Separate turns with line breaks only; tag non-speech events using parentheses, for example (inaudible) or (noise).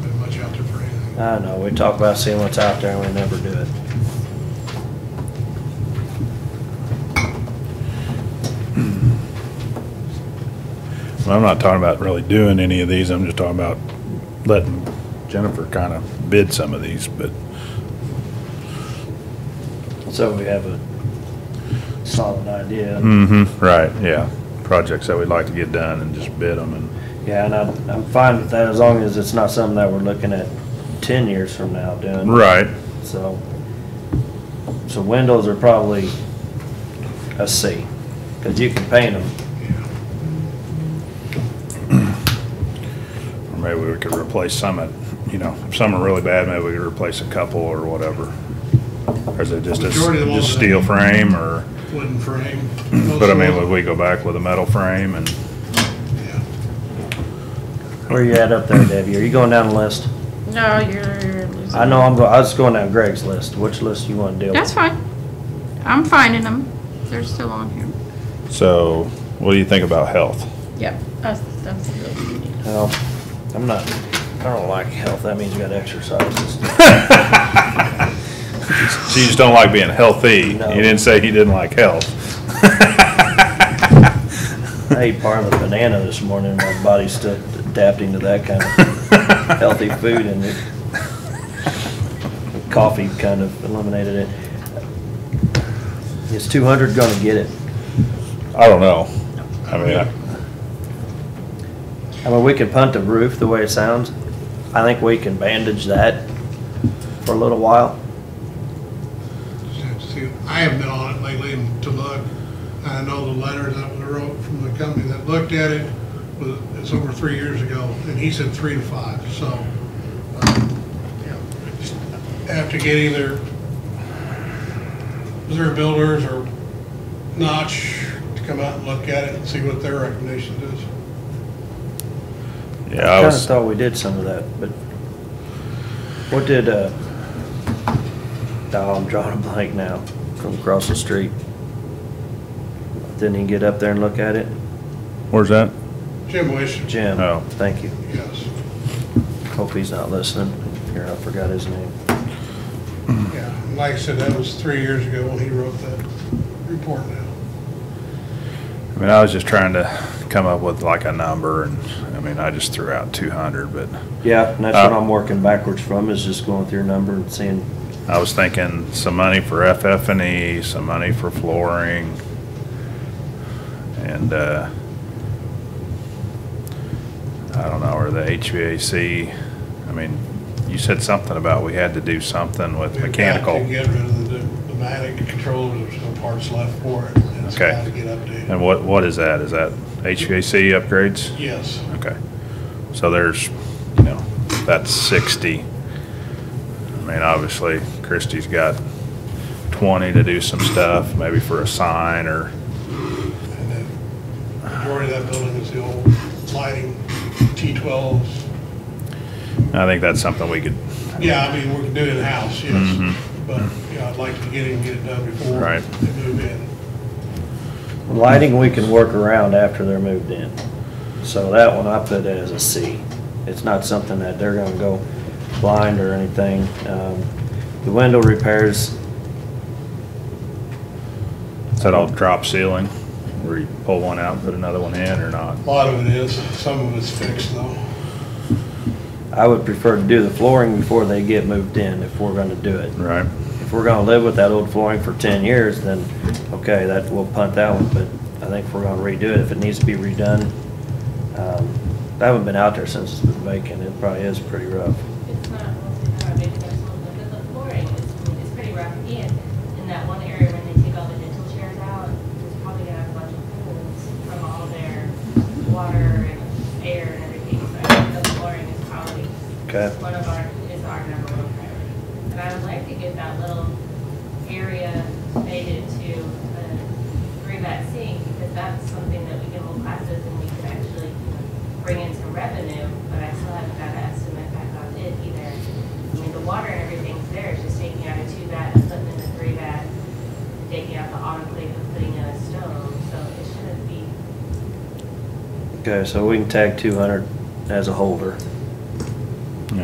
I know, we talk about seeing what's out there and we never do it.
And I'm not talking about really doing any of these, I'm just talking about letting Jennifer kind of bid some of these, but
So we have a solid idea.
Mm-hmm, right, yeah. Projects that we'd like to get done and just bid them and,
Yeah, and I'm, I'm fine with that as long as it's not something that we're looking at ten years from now doing.
right,
So, so windows are probably a C, cause you can paint them.
or maybe we could replace some at, you know, if some are really bad, maybe we could replace a couple or whatever. Or is it just a,
Majority of the ones
just
that-
steel frame or,
wooden frame.
but I mean, would we go back with a metal frame and,
Yeah.
Where you at up there, Debbie? Are you going down the list?
No, you're. losing
I know
me.
I'm, go- I was going down Greg's list. Which list you wanna deal
That's
with?
fine. I'm finding them. They're still on here.
so, what do you think about health?
Yep. That's, that's good.
Well, I'm not, I don't like health. That means you gotta exercise.
So you just don't like being healthy, you
No.
didn't say he didn't like health. (laughs)
I ate part of a banana this morning. My body's still adapting to that kind of healthy food and it- coffee kind of eliminated it. Is two hundred gonna get it?
I don't know, I mean, I-
I mean, we can punt the roof the way it sounds. I think we can bandage that for a little while.
See, I haven't been on it lately and to look. I know the letter that we wrote from the company that looked at it, was- it's over three years ago, and he said three to five, so. um, yeah. Have to get either, is there builders or Notch to come out and look at it and see what their recommendation is?
yeah, I
Kinda
was.
thought we did some of that, but what did, uh, oh, I'm drawing a blank now from across the street. Didn't he get up there and look at it?
Where's that?
Jim Wish,
Jim?
Oh.
Thank you.
yes,
Hope he's not listening. Here, I forgot his name.
yeah. Like I said, that was three years ago when he wrote that report now.
I mean, I was just trying to come up with like a number and, I mean, I just threw out two hundred, but
Yeah, and that's what
Uh,
I'm working backwards from, is just going through your number and seeing,
I was thinking some money for FF and E, some money for flooring. And, uh, I don't know, or the HVAC, I mean, you said something about we had to do something with
We've got
mechanical.
to get rid of the pneumatic controls, there's no parts left for it. It's
Okay.
got to get updated.
And what, what is that? Is that HVAC upgrades?
Yes,
Okay. So there's, you know, that's sixty. I mean, obviously, Christie's got twenty to do some stuff, maybe for a sign or,
and then majority of that building is the old lighting, T-12s.
I think that's something we could,
Yeah, I mean, we can do it in-house,
Mhm.
yes, but, yeah, I'd like to get it and get it done before
Right.
they move in.
lighting we can work around after they're moved in. So that one I put as a C. It's not something that they're gonna go blind or anything. Um, The window repairs,
is that all drop ceiling? Where you pull one out and put another one in or not?
A lot of it is, some of it's fixed though.
I would prefer to do the flooring before they get moved in if we're gonna do it.
Right.
If we're gonna live with that old flooring for ten years, then, okay, that, we'll punt that one, but I think if we're gonna redo it, if it needs to be redone, um, I haven't been out there since it's been vacant, it probably is pretty rough.
It's not, it's not a big vessel, but the flooring is, is pretty rough. And in that one area when they take all the dental chairs out, there's probably gonna have a bunch of pools from all their water and air and everything. So I think the flooring is probably
Okay.
one of our, is our number one priority. And I would like to get that little area made into a three-mat sink because that's something that we can hold classes and we could actually bring in some revenue, but I still haven't got an estimate back on it either. I mean, the water and everything's there, it's just taking out a two bat and putting in a three bat, taking out the autoclave and putting in a stove, so it shouldn't be,
Okay, so we can tag two hundred as a holder.